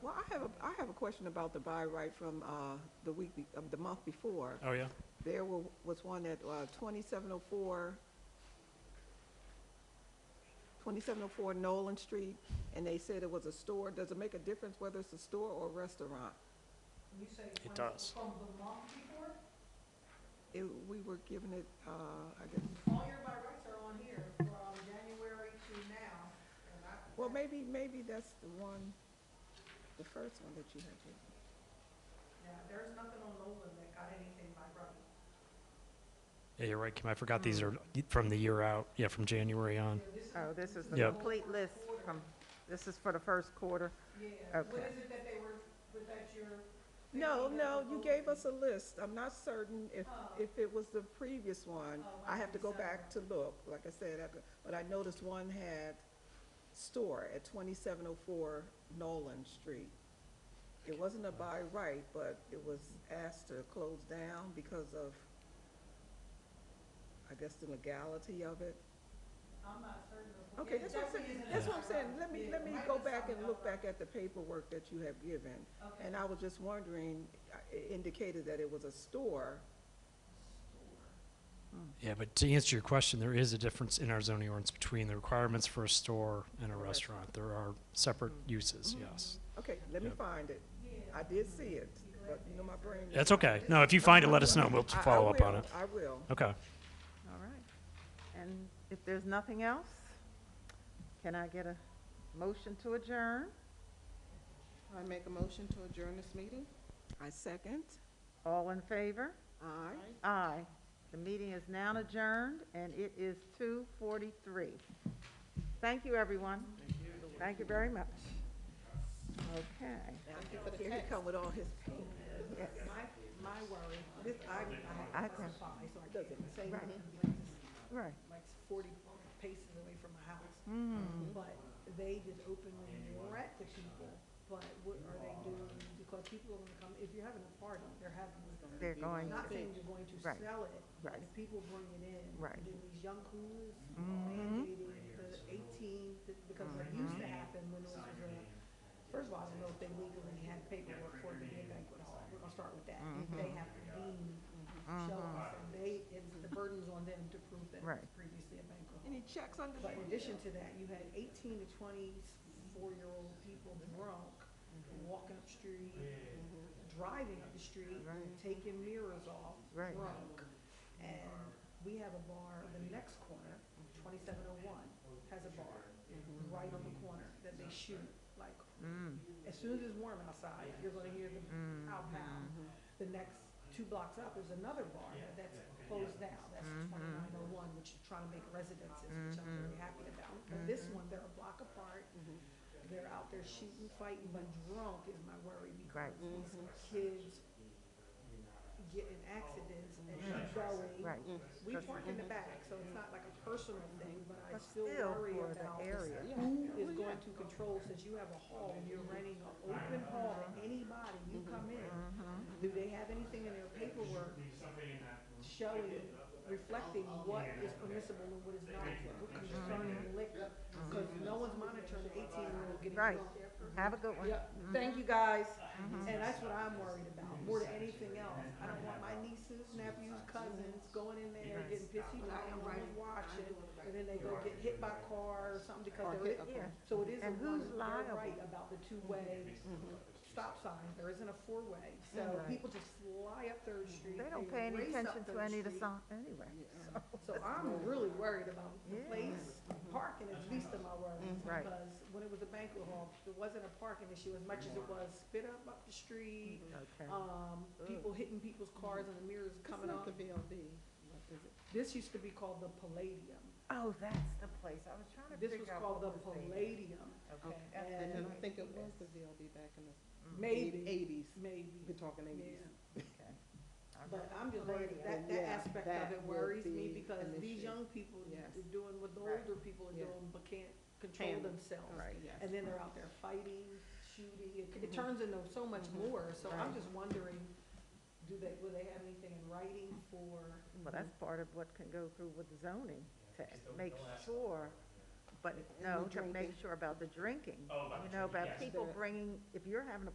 question about the buy right from uh, the week, be- of the month before. Oh, yeah? There wa- was one at uh, 2704, 2704 Nolan Street, and they said it was a store. Does it make a difference whether it's a store or a restaurant? It does. It- We were giving it, uh, I guess, All your by rights are on here from January to now, and I, well, maybe, maybe that's the one, the first one that you had. given. yeah, there's nothing on Loveland that got anything by right. Yeah, you're right, Kim. I forgot these are from the year out. Yeah, from January on. Oh, this is the Yep. complete list from, this is for the first quarter? Yeah, what Okay. is it that they were, was that your? No, no, you gave us a list. I'm not certain if, if it was the previous one. I have to go back to look, like I said, I could- but I noticed one had store at twenty-seven oh four Nolan Street. It wasn't a buy right, but it was asked to close down because of, I guess, the legality of it. I'm not certain of. Okay, Yeah, that's what I'm saying, definitely isn't that's a what I'm by saying, right. let me, Yeah, let me right go is back something and else. look back at the paperwork that you have given. Okay. And I was just wondering, uh, it indicated that it was a store, Yeah, but to answer your question, there is a difference in our zoning ordinance between the requirements for a store and a restaurant. There are separate uses, yes. okay, let me Yep. find it. I did see it, but you know, my brain. That's okay. No, if you find it, let us know. and We'll I- I follow up on will, it. I will. Okay. All right. And if there's nothing else, can I get a motion to adjourn? I make a motion to adjourn this meeting. I second, All in favor? aye. Aye. The meeting is now adjourned, and it is 2:43. Thank you, everyone. Thank you. Thank you very much. Okay. Thank you for the Here text. he come with all his pain. My, my worry, This, I, I can, fine, so I I doesn't say Right. anything, right. like forty paces away from my house. Mm. But they just openly rent to people, but what are they doing? Because people are gonna come, if you're having a party, they're having, They're going not to, saying you're going to Right. sell it, but Right. if people bring it in. Right. Mm-hmm. Then these young coolers mandating the eighteen, th- because what used Mm-hmm. to happen when it was a, first of all, I don't know if they legally had paperwork for it to be a banquet hall. We're gonna start with that. Mm-hmm. They have to deem shells, and they, it's, the burden's on them to prove that it was Right. previously a banquet hall. Any checks under But in addition to that, you had eighteen to twenty-four-year-old people drunk, walking up the street, driving up the street, taking mirrors off, Right. drunk. And we have a bar, the next corner, twenty-seven oh one, has a bar, right on the corner, that they shoot, like, Mm. as soon as it's warm outside, you're gonna hear the pow pow. Mm-hmm. The next two blocks up, there's another bar that's closed now, that's Mm-hmm. twenty-nine oh one, which is trying to make residences, which I'm very happy about. But this Mm-hmm. one, they're a block apart, they're out there shooting, fighting, but drunk is my worry because Right. these kids get in accidents and keep going. Mm-hmm. right. We park in the back, so it's not like a personal thing, but I But still still worry for the about area. who is going to control, since you have a hall, and you're renting an open hall to anybody, you Mm-hmm. come in. Do they have anything in their paperwork showing, reflecting what is permissible and what is not Mm-hmm. concerning liquor? Because no one's monitoring the eighteen-year-old getting Right. drunk. Have a good one. Mm-hmm. Yeah, thank you guys, and that's what I'm worried about, more than anything else. I don't want my nieces, nephews, cousins going in there, getting pissy, lying, right, watching, and then they go get hit by a car or something because Or they're, hit- in- yeah. so it is a And one, who's they're liable? right about the two-way stop sign, there isn't a four-way. So Right. people just fly up Third Street, They don't pay any race up attention to Third any of the Street. song, anyway. So I'm really worried about the Yeah. place, parking is least of my worries. Mm-hmm. Right. Because when it was a banquet hall, there wasn't a parking issue as much as it was spit up up the street, Okay. Mm-hmm. um, people hitting people's cars and the mirrors Coming coming off. up the VLD, what is it? This used to be called the Palladium. Oh, that's the place. I was trying to This figure was out called the what was there. Palladium, Okay. that's the And- And I new think it idea. was the VLD back in the maybe, eighties. We're maybe, talking eighties. yeah. Okay. All But right. I'm just worried, Palladium, that, that yeah, aspect of that it would worries me be because an these issue. young people Yes. are doing what the Right. older people are Yeah. doing, but can't control Handle. themselves. Right, yes. And then they're out there fighting, shooting, it, it turns into so much more, so I'm Right. just wondering, do they, will they have anything in writing for? Well, that's part of what can go through with zoning, to make sure, but no, to make drinking. Oh, sure about the drinking. You know, about people bringing, if you're having a